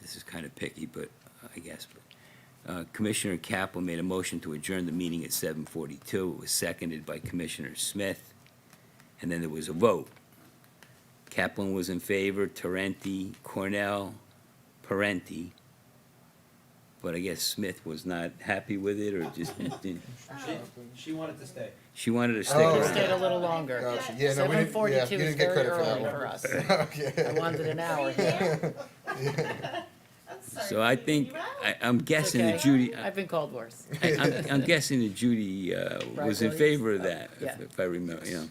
this is kind of picky, but I guess. Uh, Commissioner Kaplan made a motion to adjourn the meeting at seven forty-two. It was seconded by Commissioner Smith, and then there was a vote. Kaplan was in favor, Tarenti, Cornell, Parenti, but I guess Smith was not happy with it, or just, didn't- Oh. She, she wanted to stay. she wanted to stick Oh. around. Stayed a little longer. Gotcha. Yeah, no, we didn't- yeah, 7:42 you is didn't get very credit for that early one. for us. I Okay. wanted an hour. I'm sorry. So I Judy, think, you out? I, I'm guessing that okay. Judy, uh, I- I've been called worse. I- I'm, I'm guessing that Judy uh, was in Right, Williams? favor of that, Yeah. if- if I remember, yeah.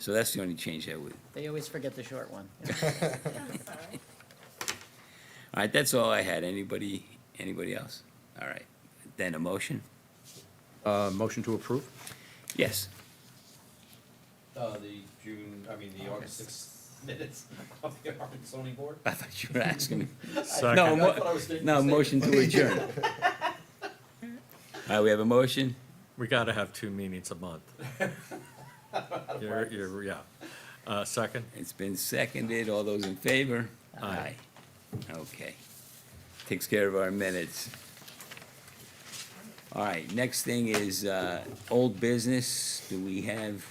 So that's the only change I would, They always forget the short one. I'm sorry. all right, that's all I had. Anybody, anybody else? All right, then a motion? Uh, motion to approve? Yes, Uh, the June, I mean, the August sixth minutes of the Arvin zoning board. I thought you were asking. I- No, that's mo- what I was thinking. No, motion to adjourn. All right, we have a motion? We gotta have two meetings a month. You're, you're, yeah. Uh, second? It's been seconded. All those in favor? Aye. Okay. Takes care of our minutes. All right, next thing is, uh, old business. Do we have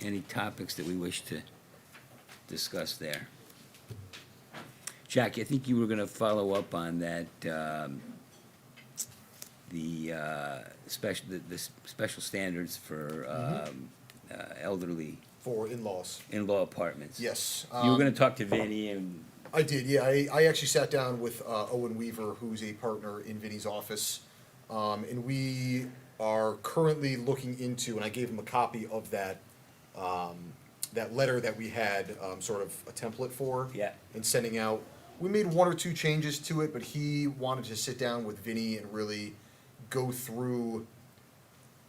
any topics that we wish to discuss there? Jack, I think you were gonna follow up on that, um, the, uh, special, the, the s- special standards for, um, uh, elderly For in-laws. in-law apartments. Yes. You were um, gonna talk to Vinny and, I did, yeah. I, I actually sat down with uh, Owen Weaver, who's a partner in Vinny's office. Um, and we are currently looking into, and I gave him a copy of that, um, that letter that we had, um, sort of a template for. Yeah. And sending out, we made one or two changes to it, but he wanted to sit down with Vinny and really go through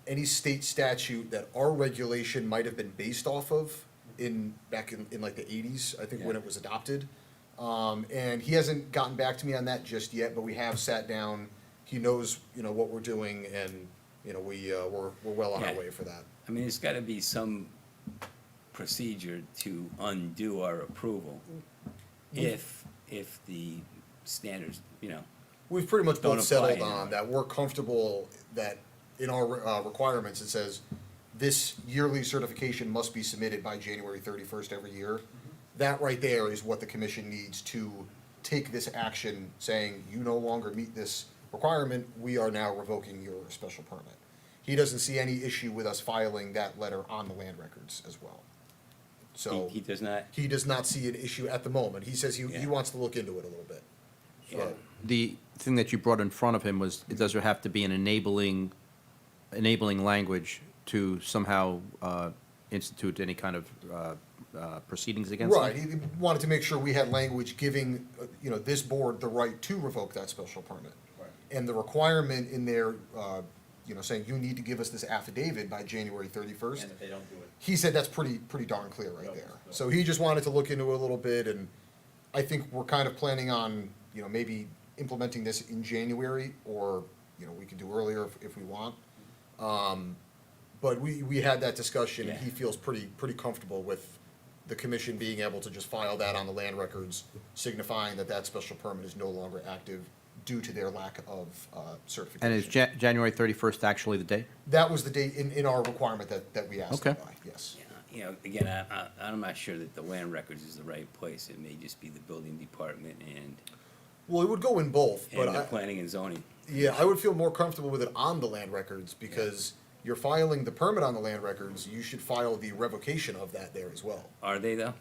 any state statute that our regulation might have been based off of in, back in, in like the eighties, I think when Yeah. it was adopted. Um, and he hasn't gotten back to me on that just yet, but we have sat down. He knows, you know, what we're doing and, you know, we, uh, we're, we're well on our Yeah. way for that. I mean, there's gotta be some procedure to undo our approval Mm. if, if the standards, you know, We've pretty much Don't apply both settled anymore. on that we're comfortable that in our uh, requirements, it says this yearly certification must be submitted by January thirty-first every year. Mm-hmm. That right there is what the commission needs to take this action, saying you no longer meet this requirement, we are now revoking your special permit. He doesn't see any issue with us filing that letter on the land records as well. he, So he does not, he does not see an issue at the moment. He says he, Yeah. he wants to look into it a little bit. yeah, The thing that you brought in front of him was, it does have to be an enabling, enabling language to somehow uh, institute any kind of uh, uh, proceedings against them? Right, he wanted to make sure we had language giving, uh, you know, this board the right to revoke that special permit. Right. And the requirement in there, uh, you know, saying you need to give us this affidavit by January thirty-first. And if they don't do it, He said that's pretty, pretty darn clear right Yep, there. yep. So he just wanted to look into it a little bit and I think we're kind of planning on, you know, maybe implementing this in January or, you know, we could do earlier if, if we want. Um, but we, we had that discussion, and he Yeah. feels pretty, pretty comfortable with the commission being able to just file that on the land records, signifying that that special permit is no longer active due to their lack of, uh, certification. And is Ja- January 31st actually the date? That was the date in, in our requirement that, that we asked them Okay. by, yes. you know, again, I, I, I'm not sure that the land records is the right place. It may just be the building department and, Well, it would go in both, but and the I, planning and zoning. Yeah, I would feel more comfortable with it on the land records because you're filing the permit on the land records, you should file the revocation of that there as well. Are they though?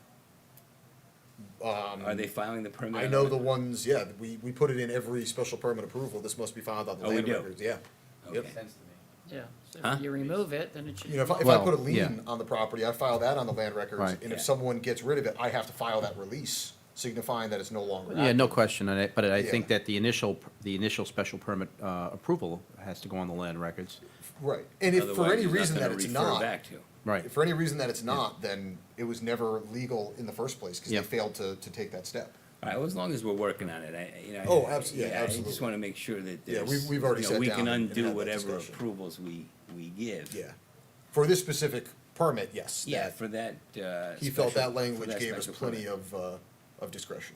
Um, Are they filing the permit? I know the ones, yeah, we, we put it in every special permit approval, this must be filed on the Oh, we land do? records, yeah. Yep. Okay. sense to me. Yeah. So Huh? if you remove it, then it should. You know, if I, if I Well, put a lien yeah. on the property, I file that on the land records, Right. and if Yeah. someone gets rid of it, I have to file that release signifying that it's no longer Yeah, active. no question, and I- but I think Uh, Yeah. that the initial, the initial special permit uh, approval has to go on the land records. Right, and if for Otherwise, any he's not reason that gonna it's refer not, Back to. Right. if for any reason that it's not, then it was never legal in the first place, because they Yep. failed to, to take that step. All right, well, as long as we're working on it, I, you know. Oh, I- abso- yeah, I absolutely. just want to make sure that Yeah, there's. we've- we've already you know, sat We can down and undo had that whatever discussion. approvals we, we give. Yeah. For this specific permit, yes. Yeah, that- for that, uh. He special- felt that for language that gave us special plenty permit. of, uh, of discretion.